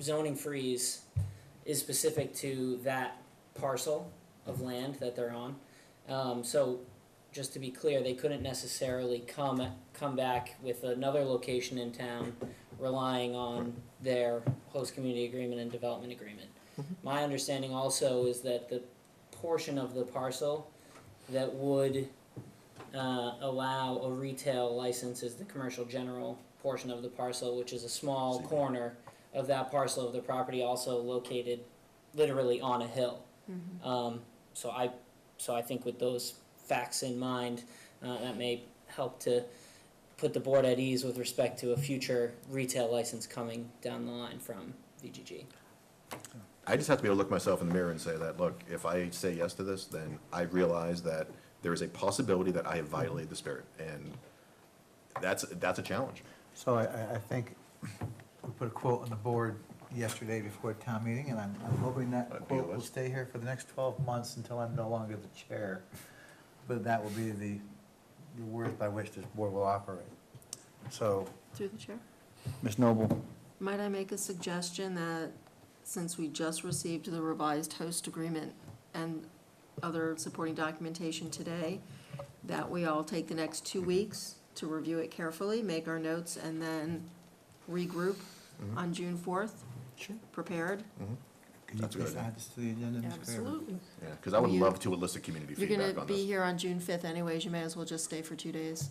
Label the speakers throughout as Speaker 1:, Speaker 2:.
Speaker 1: zoning freeze is specific to that parcel of land that they're on. Um, so, just to be clear, they couldn't necessarily come, come back with another location in town relying on their host community agreement and development agreement. My understanding also is that the portion of the parcel that would uh, allow a retail license is the commercial general portion of the parcel, which is a small
Speaker 2: See.
Speaker 1: corner of that parcel of the property also located literally on a hill.
Speaker 3: Mm-hmm.
Speaker 1: Um, so I, so I think with those facts in mind, uh, that may help to put the board at ease with respect to a future retail license coming down the line from VGG.
Speaker 2: I just have to be able to look myself in the mirror and say that, look, if I say yes to this, then I realize that there is a possibility that I have violated the spirit, and that's, that's a challenge.
Speaker 4: So I, I, I think we put a quote on the board yesterday before town meeting, and I'm, I'm hoping that
Speaker 2: That'd be a
Speaker 4: quote will
Speaker 2: list.
Speaker 4: stay here for the next twelve months until I'm no longer the chair. But that will be the, the word by which this board will operate. So,
Speaker 3: Through the chair.
Speaker 4: Ms. Noble?
Speaker 3: Might I make a suggestion that, since we just received the revised host agreement and other supporting documentation today, that we all take the next two weeks to review it carefully, make our notes, and then regroup
Speaker 2: Mm-hmm.
Speaker 3: on June fourth,
Speaker 4: Sure.
Speaker 3: prepared?
Speaker 4: Can you
Speaker 2: That's a good
Speaker 4: please
Speaker 2: idea.
Speaker 4: add this to the agenda, Ms. Fairwood?
Speaker 2: Yeah, because I would
Speaker 3: Will you-
Speaker 2: love to elicit community
Speaker 3: You're
Speaker 2: feedback
Speaker 3: gonna
Speaker 2: on
Speaker 3: be
Speaker 2: this.
Speaker 3: here on June fifth anyways, you may as well just stay for two days.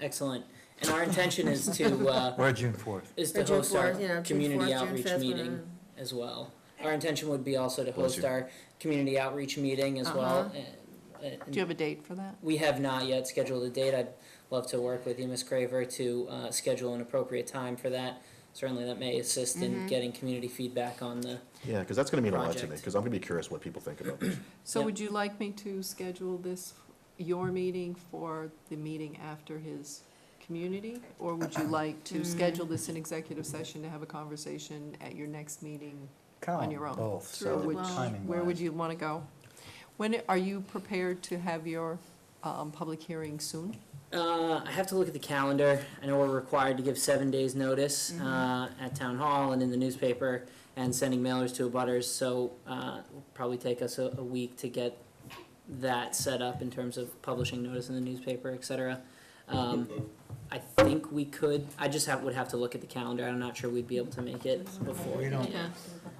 Speaker 1: Excellent. And our intention is to, uh,
Speaker 4: We're at June fourth.
Speaker 1: is
Speaker 3: Or
Speaker 1: to
Speaker 3: June
Speaker 1: host our
Speaker 3: 4th, you know, June
Speaker 1: community
Speaker 3: 4th, June
Speaker 1: outreach
Speaker 3: 5th,
Speaker 1: meeting
Speaker 3: whatever.
Speaker 1: as well. Our intention would be also to
Speaker 2: Bless
Speaker 1: host
Speaker 2: you.
Speaker 1: our community outreach meeting
Speaker 3: Uh-huh.
Speaker 1: as well. uh, uh,
Speaker 5: Do you have a date for that?
Speaker 1: We have not yet scheduled a date. I'd love to work with you, Ms. Craver, to uh, schedule an appropriate time for that. Certainly, that may assist in getting community feedback on the.
Speaker 2: Yeah, because that's going to mean a lot to me,
Speaker 1: Project.
Speaker 2: because I'm going to be curious what people think about this.
Speaker 5: So
Speaker 1: Yep.
Speaker 5: would you like me to schedule this, your meeting for the meeting after his community? Or would you like to schedule this in executive session to have a conversation at your next meeting?
Speaker 2: Oh,
Speaker 5: On your own.
Speaker 4: Both,
Speaker 5: Through
Speaker 4: so
Speaker 5: which,
Speaker 4: timing
Speaker 5: where would you want to go? When, are you prepared to have your um, public hearing soon?
Speaker 1: Uh, I have to look at the calendar. I know we're required to give seven days' notice uh, at town hall and in the newspaper, and sending mailers to abutters. So uh, it'll probably take us a, a week to get that set up in terms of publishing notice in the newspaper, et cetera. Um, I think we could. I just have, would have to look at the calendar. I'm not sure we'd be able to make it before.
Speaker 4: We don't,
Speaker 3: Yeah.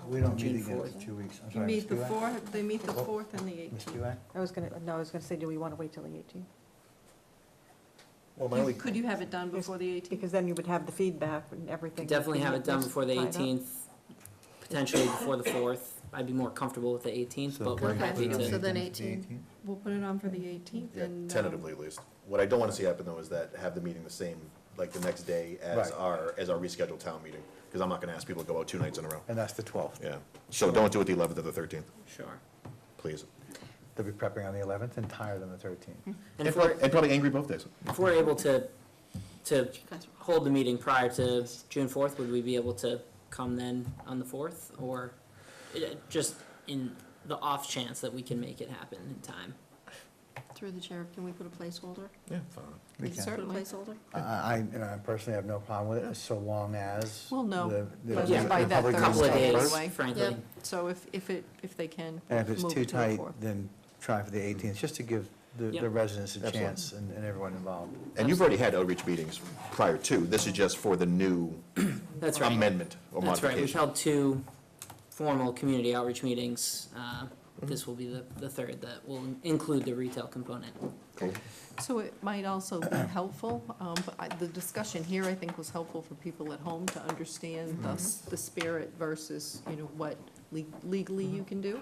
Speaker 4: we don't meet
Speaker 1: June
Speaker 4: again for
Speaker 1: 4th.
Speaker 4: two weeks. I'm sorry, Ms. Kuak?
Speaker 5: fourth, they meet the
Speaker 4: Well-
Speaker 5: fourth and the
Speaker 4: Ms. Kuak?
Speaker 6: I was gonna, no, I was gonna say, do we want to wait till the 18th?
Speaker 2: Well, my only,
Speaker 5: Could you have it done before the eighteenth?
Speaker 6: Because then you would have the feedback and everything.
Speaker 1: Definitely have it done before the
Speaker 6: Tied up.
Speaker 1: eighteenth, potentially before the fourth. I'd be more comfortable with the eighteenth,
Speaker 4: So
Speaker 1: but
Speaker 4: can
Speaker 1: we're
Speaker 4: we
Speaker 3: Okay.
Speaker 1: happy
Speaker 4: put it on
Speaker 3: So
Speaker 1: to.
Speaker 4: the
Speaker 3: then
Speaker 4: 18th? The
Speaker 3: 18th.
Speaker 4: 18th?
Speaker 5: We'll put it on for the eighteenth
Speaker 2: yeah,
Speaker 5: and. um,
Speaker 2: tentatively at least. What I don't want to see happen, though, is that have the meeting the same, like, the next day as
Speaker 4: Right.
Speaker 2: our, as our rescheduled town meeting, because I'm not going to ask people to go out two nights in a row.
Speaker 4: And that's the twelfth.
Speaker 2: Yeah, so don't do it the 11th or the 13th,
Speaker 1: Sure.
Speaker 2: please.
Speaker 4: They'll be prepping on the eleventh and tired on the thirteenth.
Speaker 5: Mm-hmm.
Speaker 1: And
Speaker 2: And
Speaker 1: if we're,
Speaker 2: prob- and probably angry both days.
Speaker 1: if we're able to, to
Speaker 3: You guys are-
Speaker 1: hold the meeting prior to June fourth, would we be able to come then on the fourth? Or eh, just in the off chance that we can make it happen in time?
Speaker 3: Through the chair, can we put a placeholder?
Speaker 2: Yeah, fine.
Speaker 4: We can.
Speaker 3: Put a
Speaker 5: Certainly.
Speaker 3: placeholder?
Speaker 4: I, I, you know, I personally have no problem with it, so long as.
Speaker 5: We'll know
Speaker 4: the- the-
Speaker 5: by-
Speaker 4: the-
Speaker 1: by
Speaker 4: the
Speaker 5: that
Speaker 4: public
Speaker 5: Thursday.
Speaker 1: Couple of
Speaker 4: response.
Speaker 1: days,
Speaker 5: Anyway.
Speaker 1: frankly.
Speaker 3: Yep.
Speaker 5: So if, if it, if they can.
Speaker 4: And if it's
Speaker 5: move
Speaker 4: too
Speaker 5: it to the
Speaker 4: tight,
Speaker 5: fourth.
Speaker 4: then try for the
Speaker 7: Mm-hmm.
Speaker 4: eighteenth, just to give the,
Speaker 1: Yeah.
Speaker 4: the residents a
Speaker 2: Absolutely.
Speaker 4: chance and, and everyone involved.
Speaker 2: And you've already had outreach meetings prior to, this is just for the new
Speaker 1: That's right.
Speaker 2: amendment or
Speaker 1: That's right, we've
Speaker 2: modification.
Speaker 1: held two formal community outreach meetings. Uh, This will be the, the third that will include the retail component.
Speaker 2: Cool.
Speaker 5: So it might also be helpful, um, but I- the discussion here, I think, was helpful for people at home to understand the, s- the spirit versus, you know, what le- legally you can do.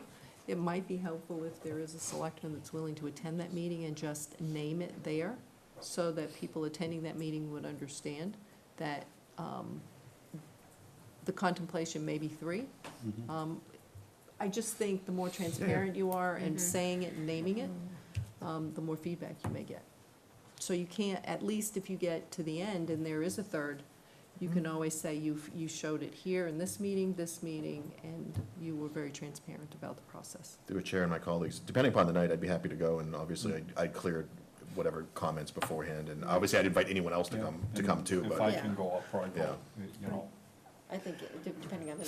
Speaker 5: It might be helpful if there is a selectman that's willing to attend that meeting and just name it there, so that people attending that meeting would understand that um, the contemplation may be three. Um, I just think the more transparent you are in saying it and naming it, um, the more feedback you may get. So you can't, at least if you get to the end and there is a third, you can always say you've, you showed it here in this meeting, this meeting, and you were very transparent about the process.
Speaker 2: Through a chair and my colleagues, depending upon the night, I'd be happy to go, and obviously, I'd- I'd cleared whatever comments beforehand, and obviously, I'd invite anyone else to
Speaker 7: Yeah,
Speaker 2: come, to
Speaker 7: and
Speaker 2: come too,
Speaker 7: If
Speaker 2: but.
Speaker 7: I
Speaker 3: Yeah.
Speaker 7: can go, I'll probably go, you know.
Speaker 3: I think, it- depending on the